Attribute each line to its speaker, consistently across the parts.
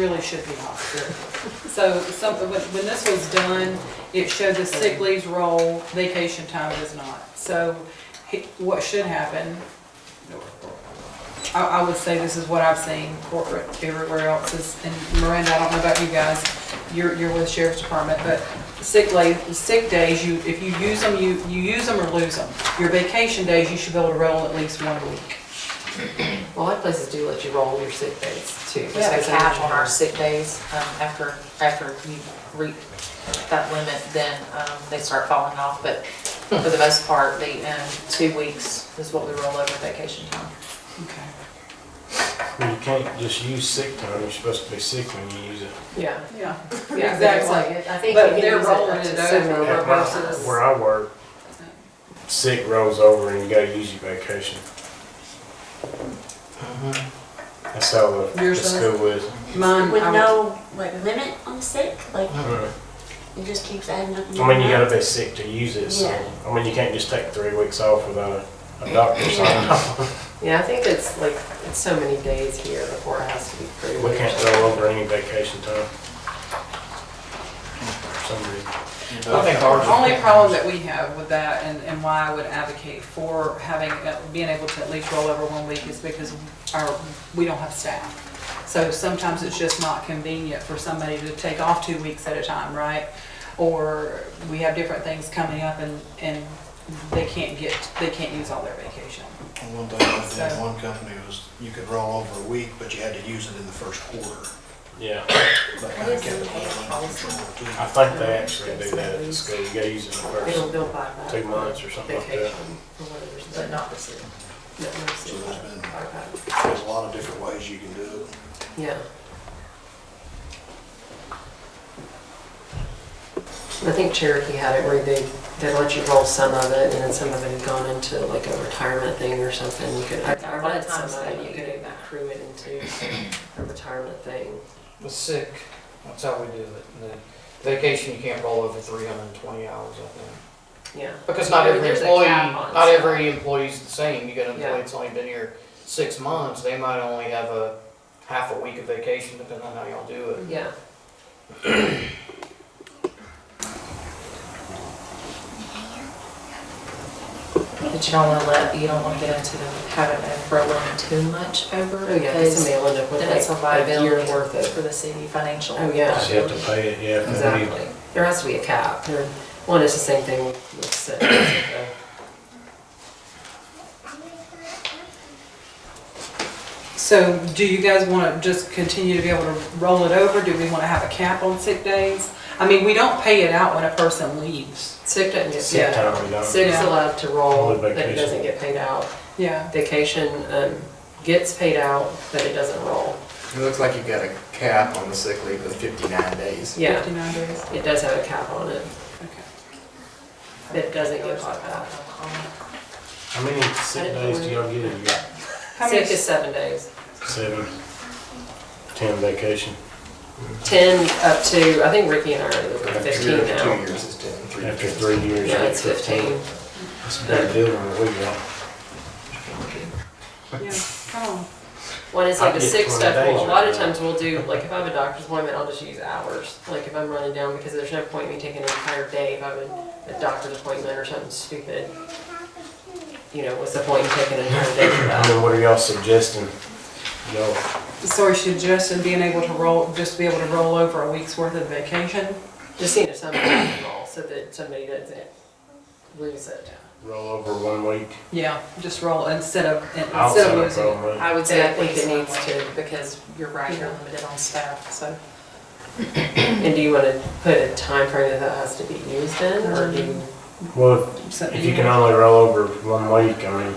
Speaker 1: really should be hospital. So some, when, when this was done, it showed the sick leaves roll, vacation time does not. So he- what should happen, I, I would say this is what I've seen corporate everywhere else is, and Miranda, I don't know about you guys, you're, you're with sheriff's department, but sick leave, sick days, you, if you use them, you, you use them or lose them. Your vacation days, you should be able to roll at least one a week.
Speaker 2: Well, a lot of places do let you roll your sick days too.
Speaker 3: We have a cap on our sick days, um, after, after you reach that limit, then, um, they start falling off, but for the most part, the, um, two weeks is what we roll over vacation time.
Speaker 1: Okay.
Speaker 4: Well, you can't just use sick time, you're supposed to be sick when you use it.
Speaker 2: Yeah.
Speaker 1: Yeah.
Speaker 2: Yeah, but it's
Speaker 1: Exactly.
Speaker 2: like- I think you
Speaker 1: But
Speaker 2: can
Speaker 1: they're
Speaker 2: use it up
Speaker 1: rolling
Speaker 2: to
Speaker 1: it
Speaker 2: seven.
Speaker 1: over.
Speaker 4: At my- Where I work, sick rolls over and you gotta use your vacation. That's how the, the
Speaker 1: Yours does?
Speaker 4: school is.
Speaker 1: Mine,
Speaker 5: With
Speaker 1: I would-
Speaker 5: no, like, limit on sick, like,
Speaker 4: Mhm.
Speaker 5: it just keeps adding up.
Speaker 4: I mean, you gotta be sick to use it, so,
Speaker 5: Yeah.
Speaker 4: I mean, you can't just take three weeks off without a, a doctor signing off.
Speaker 2: Yeah, I think it's like, it's so many days here before it has to be approved.
Speaker 4: We can't roll over any vacation time. For some reason.
Speaker 1: Okay, the only problem that we have with that and, and why I would advocate for having, uh, being able to at least roll over one week is because our, we don't have staff. So sometimes it's just not convenient for somebody to take off two weeks at a time, right? Or we have different things coming up and, and they can't get, they can't use all their vacation.
Speaker 6: One thing I did,
Speaker 1: So-
Speaker 6: in one company was, you could roll over a week, but you had to use it in the first quarter.
Speaker 4: Yeah,
Speaker 6: That kind of kept it under control
Speaker 4: I
Speaker 6: too.
Speaker 4: think they actually do that at the school, you gotta use it in the
Speaker 2: It'll
Speaker 4: first
Speaker 2: bill by that.
Speaker 4: two months or something like that.
Speaker 2: Vacation or whatever,
Speaker 3: But
Speaker 2: but not,
Speaker 3: not the sick.
Speaker 2: not
Speaker 6: So
Speaker 2: nursing.
Speaker 6: there's been,
Speaker 2: Okay.
Speaker 6: there's a lot of different ways you can do it.
Speaker 2: Yeah. I think Cherokee had it where they, they let you roll some of it and then some of it had gone into like a retirement thing or something. You could, I I read some of it, you could accrue it into a retirement thing.
Speaker 7: was sick. That's how we do it. And then vacation, you can't roll over three hundred and twenty hours, I think.
Speaker 2: Yeah.
Speaker 7: Because not
Speaker 2: There-
Speaker 7: every
Speaker 2: there's a
Speaker 7: employee,
Speaker 2: cap on
Speaker 7: not
Speaker 2: stuff.
Speaker 7: every employee's the same. You got an
Speaker 2: Yeah.
Speaker 7: employee that's only been here six months, they might only have a half a week of vacation, depending on how y'all do it.
Speaker 2: Yeah.
Speaker 3: But you don't wanna let, you don't wanna get into the habit of rolling too much over,
Speaker 2: Oh, yeah, 'cause
Speaker 3: because
Speaker 2: somebody will end up with
Speaker 3: then it's a
Speaker 2: like a year
Speaker 3: liability
Speaker 2: worth
Speaker 3: for
Speaker 2: of,
Speaker 3: the city financial.
Speaker 2: Oh, yeah.
Speaker 4: Just have to pay it, yeah. if they leave.
Speaker 2: exactly. There has to be a cap. There- One is the same thing with with sick.
Speaker 1: So do you guys want to just continue to be able to roll it over? Do we want to have a cap on sick days? I mean, we don't pay it out when a person leaves.
Speaker 2: Sick doesn't get
Speaker 4: Sick
Speaker 2: paid out.
Speaker 4: time, we don't.
Speaker 2: Sick's
Speaker 1: Yeah.
Speaker 2: allowed to roll,
Speaker 4: Only
Speaker 2: but it
Speaker 4: vacation.
Speaker 2: doesn't get paid out.
Speaker 1: Yeah.
Speaker 2: Vacation um, gets paid out, but it doesn't roll.
Speaker 8: It looks like you've got a cap on the sick leave of 59 days.
Speaker 2: Yeah,
Speaker 1: 59 days.
Speaker 2: it does have a cap on it,
Speaker 1: Okay.
Speaker 2: but it doesn't get bought back.
Speaker 4: How many sick days do y'all get a year?
Speaker 1: How many,
Speaker 2: Sick is seven days.
Speaker 4: Seven, ten vacation,
Speaker 2: Ten up to, I think Ricky and I are at fifteen
Speaker 8: Two- Two
Speaker 2: now.
Speaker 8: years is 10. three
Speaker 4: after
Speaker 8: years.
Speaker 4: three years.
Speaker 2: Yeah,
Speaker 4: you
Speaker 2: it's
Speaker 4: get
Speaker 2: fifteen.
Speaker 4: That's a better deal than what we got.
Speaker 1: yeah, come on.
Speaker 2: One is like
Speaker 4: I
Speaker 2: the
Speaker 4: get
Speaker 2: sick
Speaker 4: 20
Speaker 2: stuff,
Speaker 4: days
Speaker 2: well, a lot of
Speaker 4: right now.
Speaker 2: times we'll do, like if I have a doctor's appointment, I'll just use hours. Like if I'm running down, because there's no point in me taking an entire day if I have a, a doctor's appointment or something stupid. You know, what's the point in taking an entire day for
Speaker 4: And
Speaker 2: that?
Speaker 4: then what are y'all suggesting? Y'all,
Speaker 1: So we should just, and being able to roll, just be able to roll over a week's worth of vacation?
Speaker 2: Just seeing if somebody can roll, so that somebody doesn't lose it.
Speaker 4: roll over one week?
Speaker 1: Yeah, just roll instead of,
Speaker 4: I'll
Speaker 1: instead of
Speaker 4: set
Speaker 1: losing.
Speaker 4: up
Speaker 1: it.
Speaker 4: one week.
Speaker 3: I would
Speaker 2: Yeah,
Speaker 3: say
Speaker 2: I
Speaker 3: I
Speaker 2: think
Speaker 3: think
Speaker 2: it
Speaker 3: it
Speaker 2: needs to.
Speaker 3: because you're right, you're limited on staff, so.
Speaker 2: And do you want to put a time frame that that has to be used in, or do you?
Speaker 4: Well,
Speaker 1: So-
Speaker 4: if you can only roll over one week, I mean,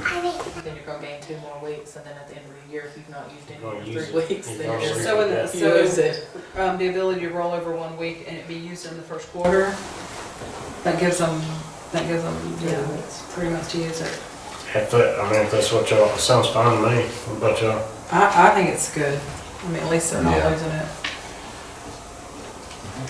Speaker 3: Then you're gonna gain two more weeks, and then at the end of the year, if you've not used
Speaker 4: Gonna
Speaker 3: any of
Speaker 4: use
Speaker 3: your three weeks,
Speaker 4: You're
Speaker 3: then
Speaker 4: gonna
Speaker 3: you're
Speaker 4: use
Speaker 3: just.
Speaker 1: So in the,
Speaker 2: You lose
Speaker 1: so,
Speaker 2: it.
Speaker 1: um, the ability to roll over one week and it be used in the first quarter, that gives them, that gives them, you know, three months to use it.
Speaker 4: if that, I mean, if that's what y'all, sounds fine to me. What about y'all?
Speaker 1: I, I think it's good. I mean, at least they're not
Speaker 8: Yeah.
Speaker 1: losing it.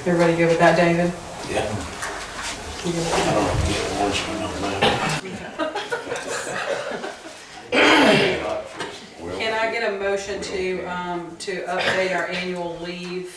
Speaker 1: Everybody good with that, David? Can I get a a motion to, um, to update our annual leave